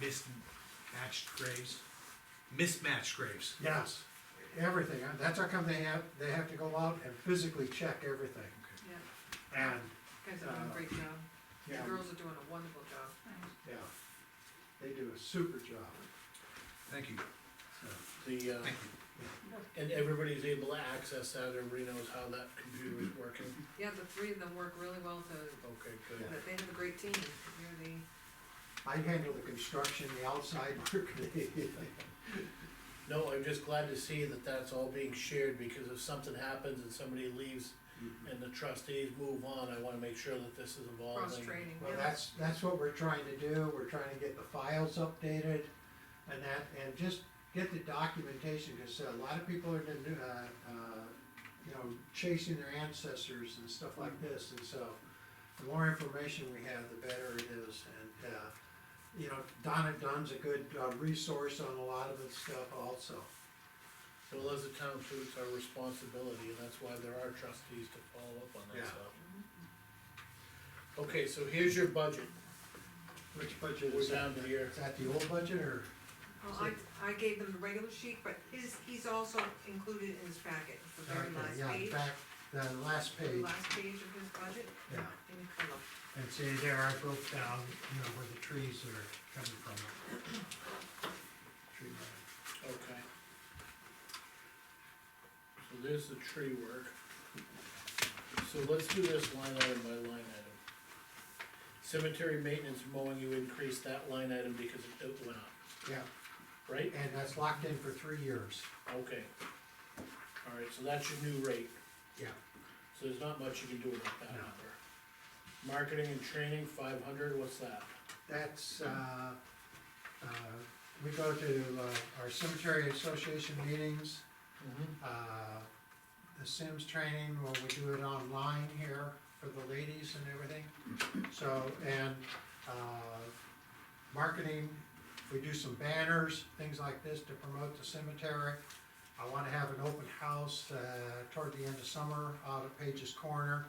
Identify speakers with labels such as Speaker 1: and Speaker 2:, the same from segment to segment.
Speaker 1: mismatched graves, mismatched graves.
Speaker 2: Yes, everything, Uh, that's how come they have, they have to go out and physically check everything,
Speaker 3: yeah,
Speaker 2: and,
Speaker 3: guys are doing a great job,
Speaker 2: Uh, yeah,
Speaker 3: the girls are doing a wonderful job.
Speaker 2: yeah, they do a super job,
Speaker 1: Thank you,
Speaker 2: so.
Speaker 4: The, uh,
Speaker 1: thank you.
Speaker 4: and everybody's able to access that, everybody knows how that computer is working,
Speaker 3: Yeah, the three of them work really well to,
Speaker 4: okay, good.
Speaker 3: they have a great team, they're the.
Speaker 2: I handle the construction, the outside work.
Speaker 4: No, I'm just glad to see that that's all being shared, because if something happens and somebody leaves and the trustees move on, I wanna make sure that this is involved.
Speaker 3: Cross
Speaker 4: and-
Speaker 3: training,
Speaker 2: Well,
Speaker 3: yeah.
Speaker 2: that's, that's what we're trying to do, we're trying to get the files updated and that, and just get the documentation, cause uh, a lot of people are gonna, do, uh, uh, you know, chasing their ancestors and stuff like this, and so the more information we have, the better it is, and, uh, you know, Donna Dunn's a good, uh, resource on a lot of this stuff also.
Speaker 4: Well, as a town, too, it's our responsibility, and that's why there are trustees to follow up on that
Speaker 2: Yeah.
Speaker 4: stuff. Okay, so here's your budget,
Speaker 2: Which budget
Speaker 4: we're
Speaker 2: is that?
Speaker 4: down to here,
Speaker 2: Is that the old budget or?
Speaker 3: Well, I, I gave them the regular sheet, but his, he's also included in his packet, the very
Speaker 2: Okay,
Speaker 3: last
Speaker 2: yeah,
Speaker 3: page,
Speaker 2: back, the last
Speaker 3: the
Speaker 2: page,
Speaker 3: last page of his budget,
Speaker 2: yeah.
Speaker 3: in color.
Speaker 2: And see there, I broke down, you know, where the trees are coming from. Tree line.
Speaker 4: okay. So there's the tree work. So let's do this line item by line item. Cemetery maintenance mowing, you increased that line item because it went up, right?
Speaker 2: Yeah, and that's locked in for three years.
Speaker 4: Okay. Alright, so that's your new rate.
Speaker 2: Yeah.
Speaker 4: So there's not much you can do about that
Speaker 2: No.
Speaker 4: number. Marketing and training, five hundred, what's that?
Speaker 2: That's, uh, uh, we go to uh, our cemetery association meetings, uh, the Sims training, well, we do it online here for the ladies and everything. So, and, uh, marketing, we do some banners, things like this to promote the cemetery. I wanna have an open house, uh, toward the end of summer out at Page's Corner.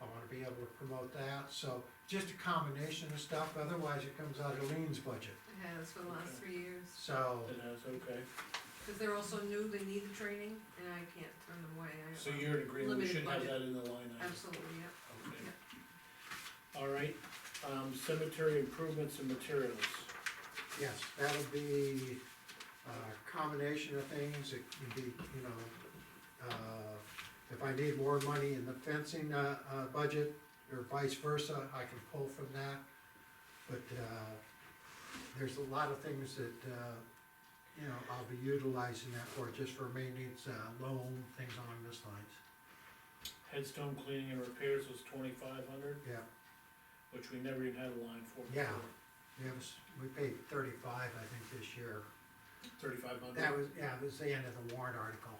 Speaker 2: I wanna be able to promote that, so just a combination of stuff, otherwise it comes out of Lean's budget.
Speaker 3: It has for the last three years,
Speaker 2: So,
Speaker 4: It has, okay.
Speaker 3: cause they're also new, they need the training, and I can't turn them away, I.
Speaker 4: So you're in agreement, we
Speaker 3: Limited
Speaker 4: should have
Speaker 3: budget.
Speaker 4: that in the line item.
Speaker 3: Absolutely, yeah.
Speaker 4: Okay. Alright, um, cemetery improvements and materials.
Speaker 2: Yes, that would be a combination of things, it would be, you know, uh, if I need more money in the fencing, uh, uh, budget, or vice versa, I can pull from that. But, uh, there's a lot of things that, uh, you know, I'll be utilizing that for, just for maintenance, uh, loan, things along those lines,
Speaker 4: Headstone cleaning and repairs was twenty-five hundred,
Speaker 2: yeah.
Speaker 4: which we never even had a line for before.
Speaker 2: Yeah. We have, s- we paid thirty-five, I think, this year,
Speaker 4: Thirty-five hundred.
Speaker 2: that was, yeah, it was the end of the warrant article,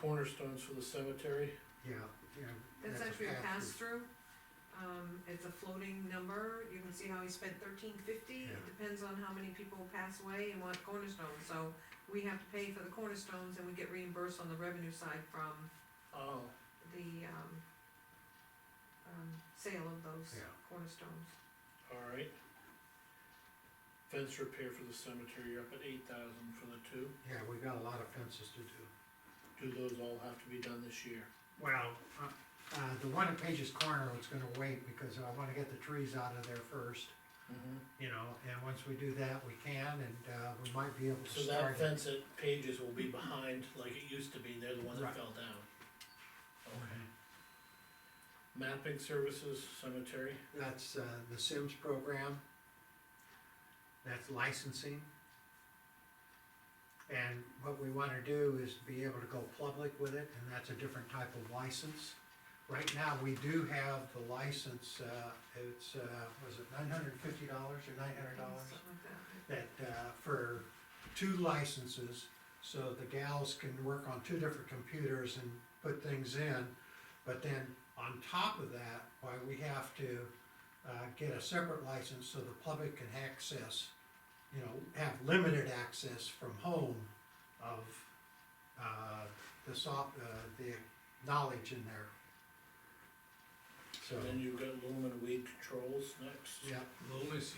Speaker 4: Cornerstones for the cemetery,
Speaker 2: yeah, yeah.
Speaker 3: That's
Speaker 2: a
Speaker 3: actually a
Speaker 2: pass-through.
Speaker 3: pass-through, um, it's a floating number, you can see how he spent thirteen fifty, it
Speaker 2: Yeah.
Speaker 3: depends on how many people pass away and want cornerstones, so we have to pay for the cornerstones and we get reimbursed on the revenue side from
Speaker 4: oh,
Speaker 3: the, um, um, sale of those
Speaker 2: Yeah.
Speaker 3: cornerstones.
Speaker 4: alright. Fence repair for the cemetery, you're up at eight thousand for the two,
Speaker 2: Yeah, we got a lot of fences to do.
Speaker 4: do those all have to be done this year?
Speaker 2: Well. Uh, the one at Page's Corner, it's gonna wait because I wanna get the trees out of there first, you know, and once we do that, we can and, uh, we might be able to
Speaker 4: So that
Speaker 2: start it.
Speaker 4: fence at Pages will be behind like it used to be, they're the ones that
Speaker 2: Right.
Speaker 4: fell down. Okay. Mapping services, cemetery,
Speaker 2: That's, uh, the Sims program. That's licensing. And what we wanna do is be able to go public with it, and that's a different type of license. Right now, we do have the license, uh, it's, uh, was it nine hundred and fifty dollars or nine hundred dollars?
Speaker 3: Something like that.
Speaker 2: that, uh, for two licenses, so the gals can work on two different computers and put things in. But then on top of that, why we have to, uh, get a separate license so the public can access, you know, have limited access from home of, uh, the soft, uh, the knowledge in there. So,
Speaker 4: and then you've got lumen and weed controls next.
Speaker 2: yeah.
Speaker 1: Loneliness